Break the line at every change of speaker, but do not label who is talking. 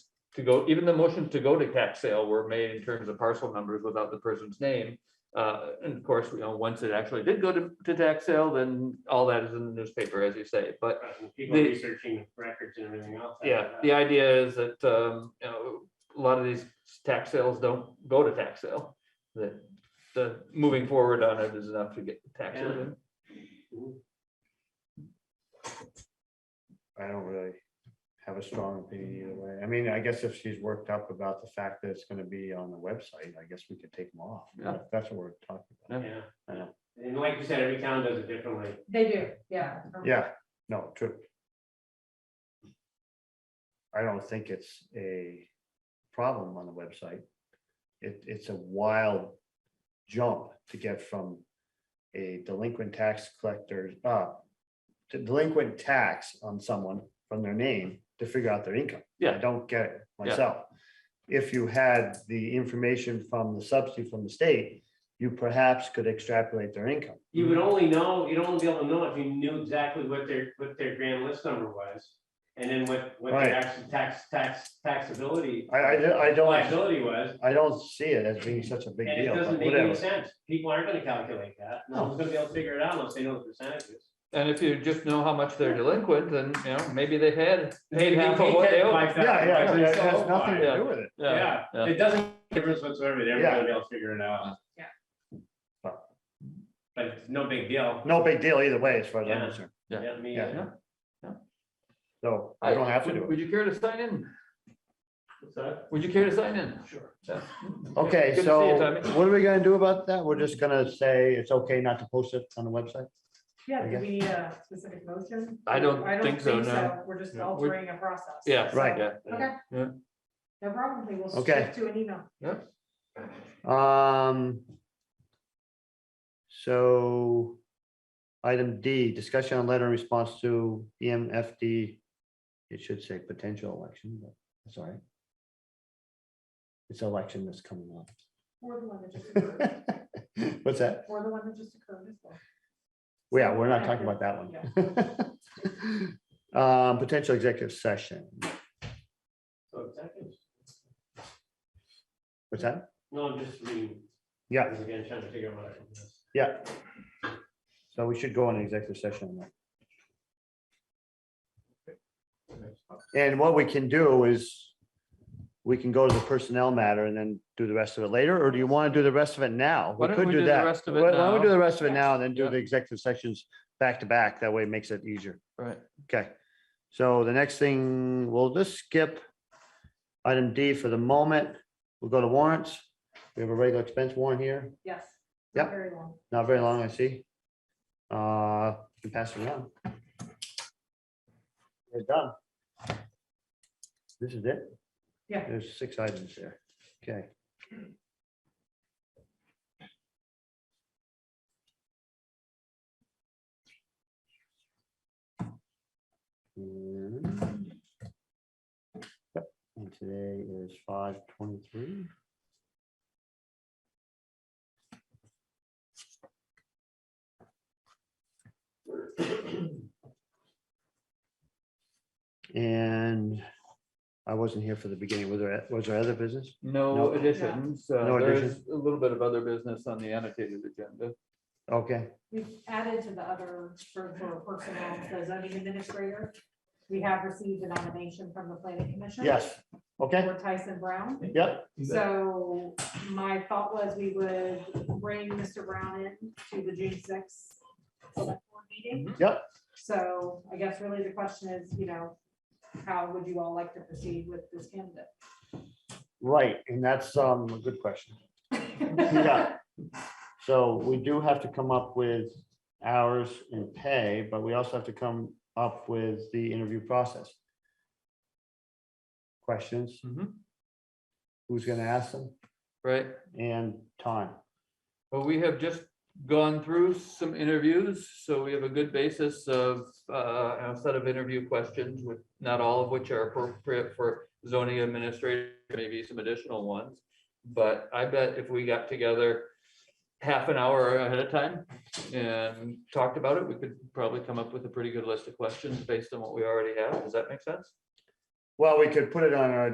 to go, even the motions to go to tax sale were made in terms of parcel numbers without the person's name. Uh, and of course, you know, once it actually did go to, to tax sale, then all that is in the newspaper, as you say, but
Right, and People
The-
researching records and everything else.
yeah, the idea is that, um, you know, a lot of these tax sales don't go to tax sale. That the moving forward on it is enough to get the tax.
Yeah.
lien.
I don't really have a strong opinion either way. I mean, I guess if she's worked up about the fact that it's gonna be on the website, I guess we could take them off.
Yeah.
If That's what we're talking about.
Yeah.
I know.
And like you said, every town does it differently.
They do, yeah.
Yeah, no, true. I don't think it's a problem on the website. It, it's a wild jump to get from a delinquent tax collector, uh, to delinquent tax on someone from their name to figure out their income. I
Yeah.
don't get it
Yeah.
myself. If you had the information from the subsidy from the state, you perhaps could extrapolate their income.
You
Mm-hmm.
would only know, you'd only be able to know if you knew exactly what their, what their grand list number was. And then what, what
Right.
their actual tax, tax, taxability.
I, I, I don't.
Liability was,
I don't see it as being such a big
and it
deal,
doesn't
but
make any
whatever.
sense. People aren't gonna calculate that. No one's gonna be able to figure it out unless they know the percentages.
And if you just know how much they're delinquent, then, you know, maybe they've had,
They
paid half of what they owe.
can't buy
Yeah, yeah,
that.
yeah, it
It's all
has nothing
fine.
to do with it.
Yeah,
Yeah, it doesn't make a difference whatsoever. They're
Yeah.
gonna be able to figure it out.
Yeah.
But-
But it's no big deal.
No big deal either way, as far as I'm
Yeah.
concerned.
Yeah.
Yeah, me,
Yeah.
uh,
So I don't have to do
Would you care to sign in?
what's that?
Would you care to sign in?
Sure.
Yeah.
it. Okay,
Good to see
so
you, Tommy.
what are we gonna do about that? We're just gonna say it's okay not to post it on the website?
Yeah, do
Yeah.
we need a specific motion?
I don't think so, no.
We're just
No, we-
altering a process.
Yeah.
So,
Right.
Yeah.
Okay.
Yeah.
No problem, we will
Okay.
stick to an email.
Um. So. Item D, discussion on letter in response to E EMFD. It should say potential election, but that's all right. It's election that's coming up.
We're the one that just occurred.
What's that?
We're the one that just occurred as well.
Well, Yeah, we're not talking about that one. Um, potential executive session.
So executives.
What's that?
No, I'm just reading.
Yeah,
Because Again, trying to figure out what I can miss.
yeah. So we should go on an executive session. on that. And what we can do is we can go to the personnel matter and then do the rest of it later, or do you want to do the rest of it now?
Why
We
don't
could
we
do
do the
that.
rest of it
Why why don't we do
now?
the rest of it now and then do
Yeah.
the executive sessions back to back? That way it makes it easier.
Right.
Okay, so the next thing, we'll just skip item D for the moment. We'll go to warrants. We have a regular expense warrant here,
Yes.
Yep.
Very long.
not very long, I see. Uh, you can pass it around. We're done. This is it?
Yeah.
There's six items there. Okay. And Mm-hmm. yep, and today is five twenty-three. And I wasn't here for the beginning. Was there, was there other business?
No
No.
additions. Uh,
No
there is
addition.
a little bit of other business on the annotated agenda.
Okay,
We've added to the other, for, for personnel, the zoning administrator. We have received a nomination from the planning commission.
yes, okay,
For Tyson Brown.
yep,
So my thought was we would bring Mr. Brown in to the June sixth select board meeting.
Yep.
So I guess really the question is, you know, how would you all like to proceed with this
right, and that's um a good question.
candidate?
Yeah. So we do have to come up with hours and pay, but we also have to come up with the interview process. Questions,
Mhm.
who's gonna ask them,
Right.
and time.
Well, we have just gone through some interviews, so we have a good basis of uh, a set of interview questions with not all of which are appropriate for zoning administrator, maybe some additional ones. But I bet if we got together half an hour ahead of time and talked about it, we could probably come up with a pretty good list of questions based on what we already have. Does that make sense?
Well, we could put it on our